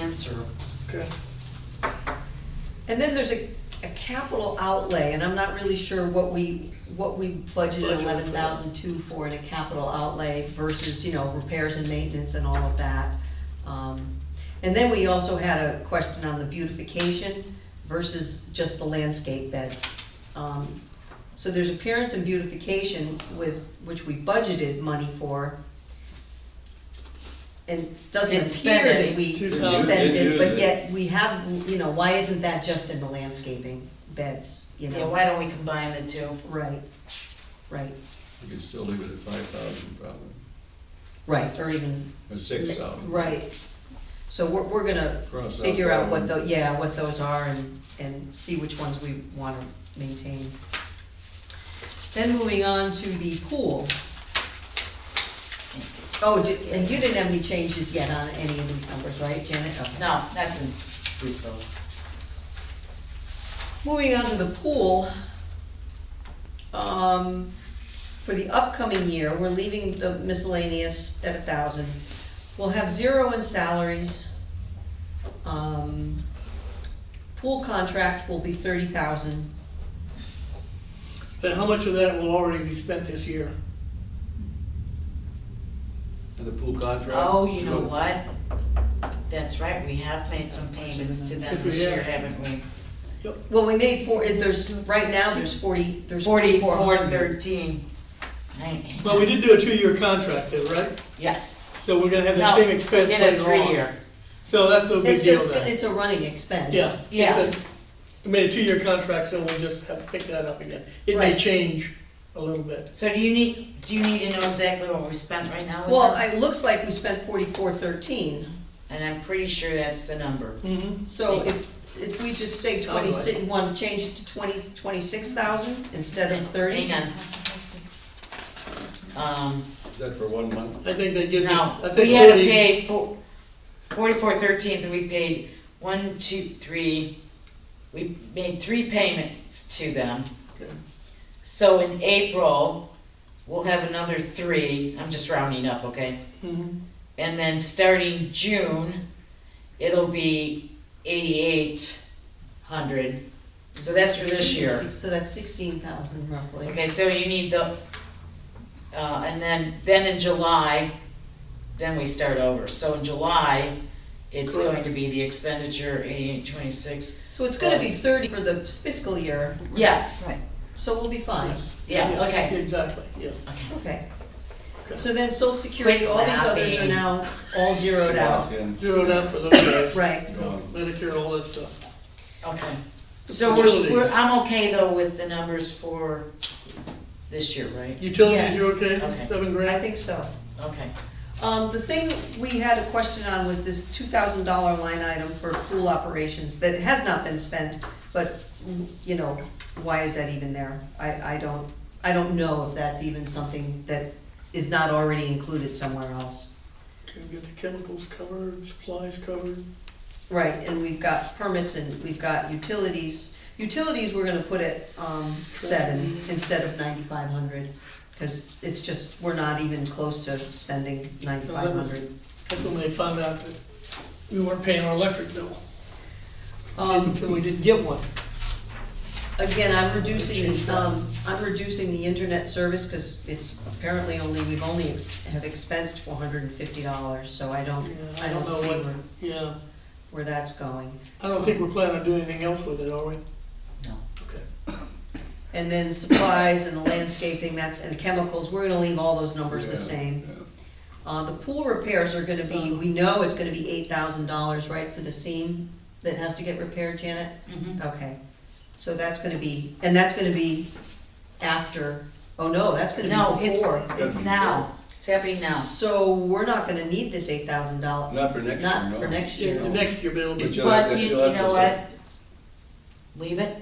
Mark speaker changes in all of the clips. Speaker 1: answer.
Speaker 2: Okay.
Speaker 3: And then there's a, a capital outlay, and I'm not really sure what we, what we
Speaker 2: Budgeted
Speaker 3: budgeted
Speaker 2: for.
Speaker 3: eleven thousand two for in a capital outlay versus, you know, repairs and maintenance and all of that. Um, And then we also had a question on the beautification versus just the landscape beds. Um, So there's appearance and beautification with, which we budgeted money for. And doesn't
Speaker 1: Didn't spend
Speaker 3: appear that
Speaker 1: any.
Speaker 3: we
Speaker 2: Two thousand.
Speaker 3: spent it, but
Speaker 4: Didn't do
Speaker 3: yet we have, you know, why isn't that just in the landscaping beds, you
Speaker 1: Yeah,
Speaker 3: know?
Speaker 1: why don't we combine the two?
Speaker 3: Right, right,
Speaker 4: You could still leave it at five thousand probably,
Speaker 3: right, or even,
Speaker 4: or six thousand.
Speaker 3: right. So we're, we're gonna
Speaker 4: Cross out
Speaker 3: figure out what
Speaker 4: that
Speaker 3: tho, yeah, what those are and, and see which ones we wanna maintain. Then moving on to the pool. Oh, di- and you didn't have any changes yet on any of these numbers, right, Janet? Okay.
Speaker 1: No, not since we spoke.
Speaker 3: Moving on to the pool, um, for the upcoming year, we're leaving the miscellaneous at a thousand. We'll have zero in salaries. Um, pool contract will be thirty thousand.
Speaker 2: Then how much of that will already be spent this year?
Speaker 4: And the pool contract?
Speaker 1: Oh, you know what? That's right, we have made some payments to them
Speaker 2: Yes, we
Speaker 1: this year,
Speaker 2: have.
Speaker 1: haven't we?
Speaker 3: Well, we made four, it- there's, right now, there's forty, there's forty-four
Speaker 1: Forty-four
Speaker 3: hundred.
Speaker 1: thirteen.
Speaker 2: Well, we did do a two-year contract though, right?
Speaker 1: Yes.
Speaker 2: So we're gonna have the
Speaker 1: No,
Speaker 2: same
Speaker 1: we
Speaker 2: expense
Speaker 1: did a
Speaker 2: later on.
Speaker 1: three-year.
Speaker 2: So that's no big
Speaker 3: It's,
Speaker 2: deal
Speaker 3: it's,
Speaker 2: then.
Speaker 3: it's a running expense.
Speaker 2: Yeah.
Speaker 1: Yeah.
Speaker 2: it's a- We made a two-year contract, so we'll just have to pick that up again. It may
Speaker 3: Right.
Speaker 2: change a little bit.
Speaker 1: So do you need, do you need to know exactly what we spent right now with
Speaker 3: Well,
Speaker 1: them?
Speaker 3: it looks like we spent forty-four thirteen.
Speaker 1: And I'm pretty sure that's the number.
Speaker 2: Mm-hmm.
Speaker 3: So if, if we just say
Speaker 2: Sounds
Speaker 3: twenty,
Speaker 2: like-
Speaker 3: you wanna change it to twenty, twenty-six thousand instead of thirty?
Speaker 1: Hang on. Um,
Speaker 4: Is that for one month?
Speaker 2: I think that gives
Speaker 1: No,
Speaker 2: us, I think
Speaker 1: we had to
Speaker 2: forty-
Speaker 1: pay four, forty-four thirteenth, and we paid one, two, three, we made three payments to them.
Speaker 2: Okay.
Speaker 1: So in April, we'll have another three, I'm just rounding up, okay?
Speaker 2: Mhm.
Speaker 1: And then starting June, it'll be eighty-eight hundred, so that's for this year.
Speaker 3: So that's sixteen thousand roughly.
Speaker 1: Okay, so you need the, uh, and then, then in July, then we start over, so in July, it's
Speaker 2: Correct.
Speaker 1: going to be the expenditure eighty-eight twenty-six,
Speaker 3: So it's gonna be
Speaker 1: Yes.
Speaker 3: thirty for the fiscal year,
Speaker 1: yes,
Speaker 3: so we'll be fine.
Speaker 2: Yes.
Speaker 1: yeah, okay.
Speaker 2: Exactly, yeah.
Speaker 3: Okay.
Speaker 2: Okay.
Speaker 3: So then social security,
Speaker 1: Quit
Speaker 3: all these others are
Speaker 1: laughing.
Speaker 3: now all zeroed out,
Speaker 4: Lock-in,
Speaker 2: Zeroed out for those guys.
Speaker 3: right?
Speaker 4: gone.
Speaker 2: Medicare, all that stuff.
Speaker 1: okay. So we're,
Speaker 2: Facilities.
Speaker 1: we're, I'm okay though with the numbers for this year, right?
Speaker 2: Utilities,
Speaker 3: Yes.
Speaker 2: you okay?
Speaker 1: Okay.
Speaker 2: Seven
Speaker 3: I
Speaker 2: grand?
Speaker 3: think so.
Speaker 1: Okay,
Speaker 3: Um, the thing we had a question on was this two thousand dollar line item for pool operations that has not been spent, but, you know, why is that even there? I, I don't, I don't know if that's even something that is not already included somewhere else.
Speaker 2: Can we get the chemicals covered, supplies covered?
Speaker 3: Right, and we've got permits and we've got utilities. Utilities, we're gonna put at, um, seven instead of ninety-five hundred, cause it's just, we're not even close to spending ninety-five hundred.
Speaker 2: That's when they found out that we weren't paying our electric bill,
Speaker 3: Um,
Speaker 2: until we didn't get one.
Speaker 3: Again, I'm reducing, the, um, I'm reducing the internet service, cause it's apparently only, we've only ex- have expensed four hundred and fifty dollars, so I don't,
Speaker 2: Yeah,
Speaker 3: I don't
Speaker 2: know
Speaker 3: see
Speaker 2: what-
Speaker 3: where,
Speaker 2: Yeah,
Speaker 3: where that's going.
Speaker 2: I don't think we're planning on doing anything else with it, are we?
Speaker 1: no,
Speaker 2: Okay.
Speaker 3: And then supplies and the landscaping, that's, and chemicals, we're gonna leave all those numbers the
Speaker 4: Yeah,
Speaker 3: same.
Speaker 4: yeah.
Speaker 3: Uh, the pool repairs are gonna be, we know it's gonna be eight thousand dollars, right, for the seam that has to get repaired, Janet?
Speaker 1: Mhm.
Speaker 3: Okay, so that's gonna be, and that's gonna be after, oh no, that's gonna
Speaker 1: no,
Speaker 3: be
Speaker 1: it's,
Speaker 3: before.
Speaker 1: it's now, it's happening now.
Speaker 3: So we're not gonna need this eight thousand dollars,
Speaker 4: Not for next year,
Speaker 3: not
Speaker 4: no.
Speaker 3: for next
Speaker 2: Yeah,
Speaker 3: year.
Speaker 2: the next year bill,
Speaker 4: But
Speaker 2: but
Speaker 4: you'll have
Speaker 1: But
Speaker 4: to-
Speaker 1: you, you
Speaker 4: you'll have to
Speaker 1: know
Speaker 4: say-
Speaker 1: what? Leave it.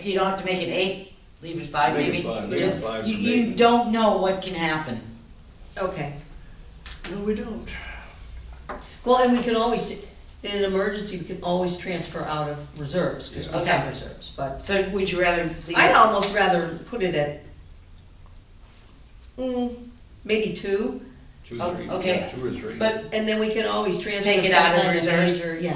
Speaker 1: You don't have to make it eight, leave it five
Speaker 4: Make it
Speaker 1: maybe.
Speaker 4: five, make it
Speaker 1: Ju-
Speaker 4: five
Speaker 1: You,
Speaker 4: for
Speaker 1: you
Speaker 4: maintenance.
Speaker 1: don't know what can happen.
Speaker 3: Okay,
Speaker 2: no, we don't.
Speaker 3: well, and we can always, in an emergency, we can always transfer out of reserves, cause we
Speaker 1: Yeah. Okay.
Speaker 3: have reserves, but
Speaker 1: So would you rather leave it?
Speaker 3: I'd almost rather put it at, mm, maybe two,
Speaker 4: two,
Speaker 1: Oh,
Speaker 4: three,
Speaker 1: okay.
Speaker 4: two or three.
Speaker 1: But
Speaker 3: And then we can always transfer.
Speaker 1: Take it out of
Speaker 3: sometime in the
Speaker 1: reserves?
Speaker 3: major- Yeah,